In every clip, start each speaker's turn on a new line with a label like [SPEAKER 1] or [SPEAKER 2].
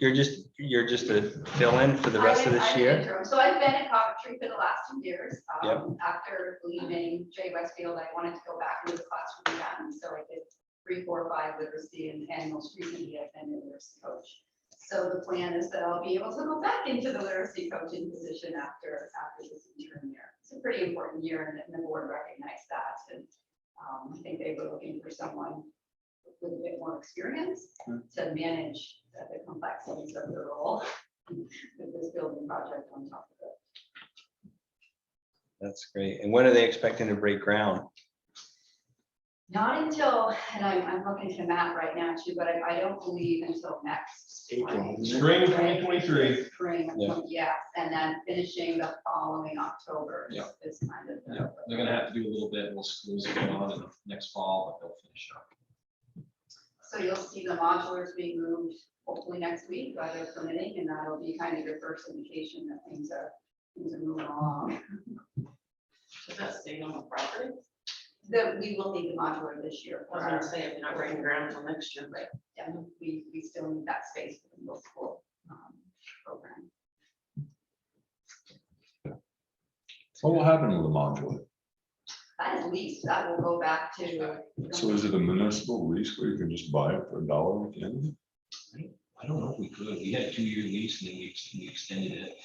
[SPEAKER 1] You're just, you're just a fill-in for the
[SPEAKER 2] I
[SPEAKER 1] rest of
[SPEAKER 2] was- I
[SPEAKER 1] this
[SPEAKER 2] was
[SPEAKER 1] year?
[SPEAKER 2] interim. So I've been at Coventry for the last two years. Um,
[SPEAKER 1] Yep.
[SPEAKER 2] After leaving Jay Westfield, I wanted to go back into the classroom again, so I did three, four, five literacy and, and most recently I've been a literacy coach. So the plan is that I'll be able to go back into the literacy coaching position after, after this interim year. It's a pretty important year and- and the board recognized that and um, I think they were looking for someone with a bit more experience
[SPEAKER 1] Hmm.
[SPEAKER 2] to manage the the complexities of the role with this building project on top of it.
[SPEAKER 1] That's great. And when are they expecting to break ground?
[SPEAKER 2] Not until, and I'm, I'm looking to Matt right now too, but I, I don't believe until next.
[SPEAKER 3] April.
[SPEAKER 4] Spring of 2023.
[SPEAKER 2] Spring, of
[SPEAKER 1] Yeah.
[SPEAKER 2] twen- yes, and then finishing the following October is-
[SPEAKER 3] Yeah.
[SPEAKER 2] is kind of. the-
[SPEAKER 3] Yeah, they're gonna have to do a little bit, little schools going on in the next fall, but they'll finish up.
[SPEAKER 2] So you'll see the modulars being moved hopefully next week, weather permitting, and that'll be kind of your first indication that things are, things are moving along.
[SPEAKER 5] Is that staying on the property?
[SPEAKER 2] That we will need the modular this year.
[SPEAKER 5] I
[SPEAKER 2] for
[SPEAKER 5] was
[SPEAKER 2] our-
[SPEAKER 5] gonna say, if you're not breaking ground till next year, but
[SPEAKER 2] Yeah, we, we still need that space for the middle school um, program.
[SPEAKER 6] What will happen with the modular?
[SPEAKER 2] That is leased, that will go back to.
[SPEAKER 6] So is it a municipal lease where you can just buy it for a dollar at the end? of it?
[SPEAKER 3] I don't know if we could, we had a two-year lease and then we ex- we extended it.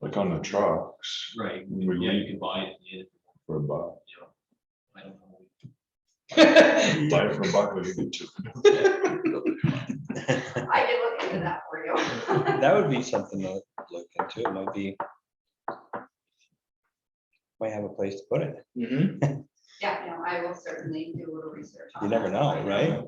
[SPEAKER 6] Like on the trucks,
[SPEAKER 3] Right.
[SPEAKER 6] we
[SPEAKER 3] Yeah, you
[SPEAKER 6] leave
[SPEAKER 3] can buy it, yeah,
[SPEAKER 6] for a buck,
[SPEAKER 3] you know, I don't know.
[SPEAKER 6] buy it for a buck, we get two.
[SPEAKER 2] I can look into that for you.
[SPEAKER 1] That would be something to look into. It might be. Might have a place to put it.
[SPEAKER 2] Yeah, no, I will certainly do a little research. on
[SPEAKER 1] You never know,
[SPEAKER 2] that.
[SPEAKER 1] right?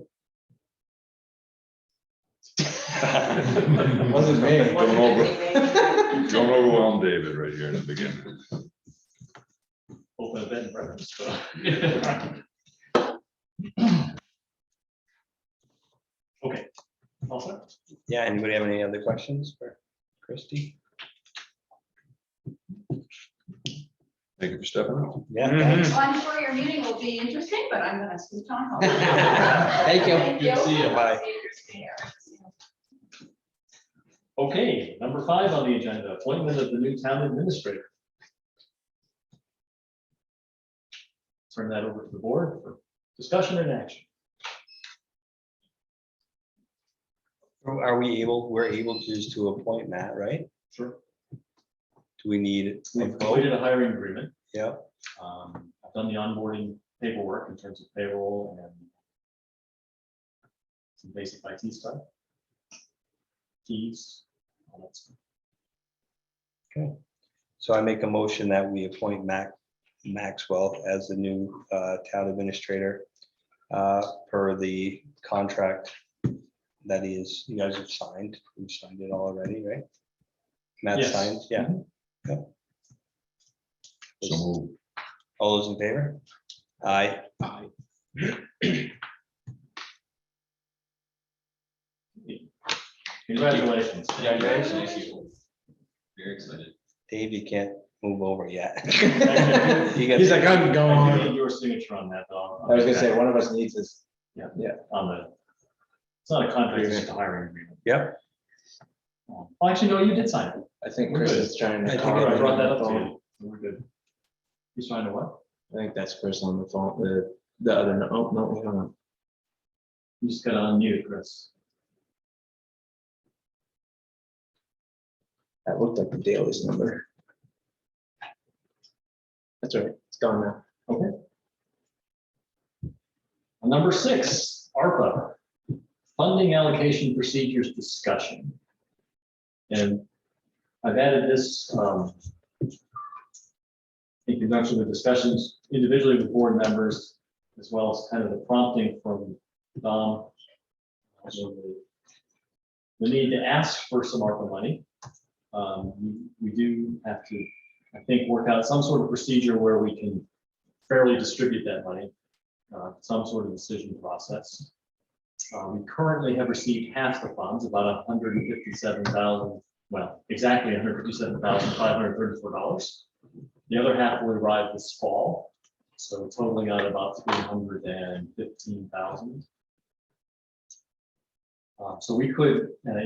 [SPEAKER 6] Wasn't me. Don't over,
[SPEAKER 5] anyway.
[SPEAKER 6] don't overwhelm David right here in the beginning.
[SPEAKER 4] Open a bed and breakfast. Okay. All set?
[SPEAKER 1] Yeah, anybody have any other questions for Christie?
[SPEAKER 6] Thank you for stepping up.
[SPEAKER 1] Yeah.
[SPEAKER 4] Mhm.
[SPEAKER 1] thanks.
[SPEAKER 2] Well, I'm sure your meeting will be interesting, but I'm gonna scoot on home.
[SPEAKER 1] Thank you.
[SPEAKER 2] Thank
[SPEAKER 1] Good to see you. Bye.
[SPEAKER 2] See you, Christine.
[SPEAKER 4] Okay, number five on the agenda, appointment of the new town administrator. Turn that over to the board for discussion and action.
[SPEAKER 1] Are we able, we're able to just to appoint Matt, right?
[SPEAKER 4] Sure.
[SPEAKER 1] Do we need a
[SPEAKER 4] We've
[SPEAKER 1] vote?
[SPEAKER 4] completed a hiring agreement.
[SPEAKER 1] Yeah,
[SPEAKER 4] Um, I've done the onboarding paperwork in terms of payroll and some basic IT stuff. Keys. all that stuff.
[SPEAKER 1] so I make a motion that we appoint Mac, Maxwell as the new uh, town administrator uh, per the contract that he is, you guys have signed, we've signed it all already, right? Matt
[SPEAKER 4] Yes.
[SPEAKER 1] signed, yeah. Yep.
[SPEAKER 6] So move.
[SPEAKER 1] All those in favor? Aye.
[SPEAKER 3] Aye.
[SPEAKER 4] Congratulations.
[SPEAKER 3] Congratulations. Very excited.
[SPEAKER 1] Dave, you can't move over yet. You got-
[SPEAKER 7] He's like, I'm
[SPEAKER 4] I do need
[SPEAKER 7] going.
[SPEAKER 4] Your signature on that, though.
[SPEAKER 7] I was gonna say, one of us needs this.
[SPEAKER 4] On the, it's not a contract, it's just a hiring agreement.
[SPEAKER 1] Yep,
[SPEAKER 4] Oh, Actually, no, you did sign it.
[SPEAKER 7] I think
[SPEAKER 4] We're
[SPEAKER 7] Chris
[SPEAKER 4] good.
[SPEAKER 7] is trying
[SPEAKER 1] I
[SPEAKER 7] to.
[SPEAKER 1] think
[SPEAKER 7] call
[SPEAKER 1] I
[SPEAKER 7] right
[SPEAKER 4] brought
[SPEAKER 7] on
[SPEAKER 4] that
[SPEAKER 7] the
[SPEAKER 4] up to
[SPEAKER 7] phone.
[SPEAKER 4] you. We're good. You signed a what?
[SPEAKER 7] I think that's Chris on the phone, the, the other, no, oh, no, we don't know.
[SPEAKER 4] You just gotta unmute, Chris.
[SPEAKER 7] That looked like the Daly's number. That's all right, it's gone now.
[SPEAKER 4] Number six, ARPA, funding allocation procedures discussion. And I've added this um, in conjunction with discussions individually with board members, as well as kind of the prompting from Dom. also the- The need to ask for some ARPA money. Um, we- We do have to, I think, work out some sort of procedure where we can fairly distribute that money uh, some sort of decision process. Uh, We currently have received half the funds, about hundred and fifty-seven thousand, well, exactly hundred fifty-seven thousand five hundred thirty-four dollars. The other half will arrive this fall, so totaling out about three hundred and fifteen thousand. Uh, So we could, and I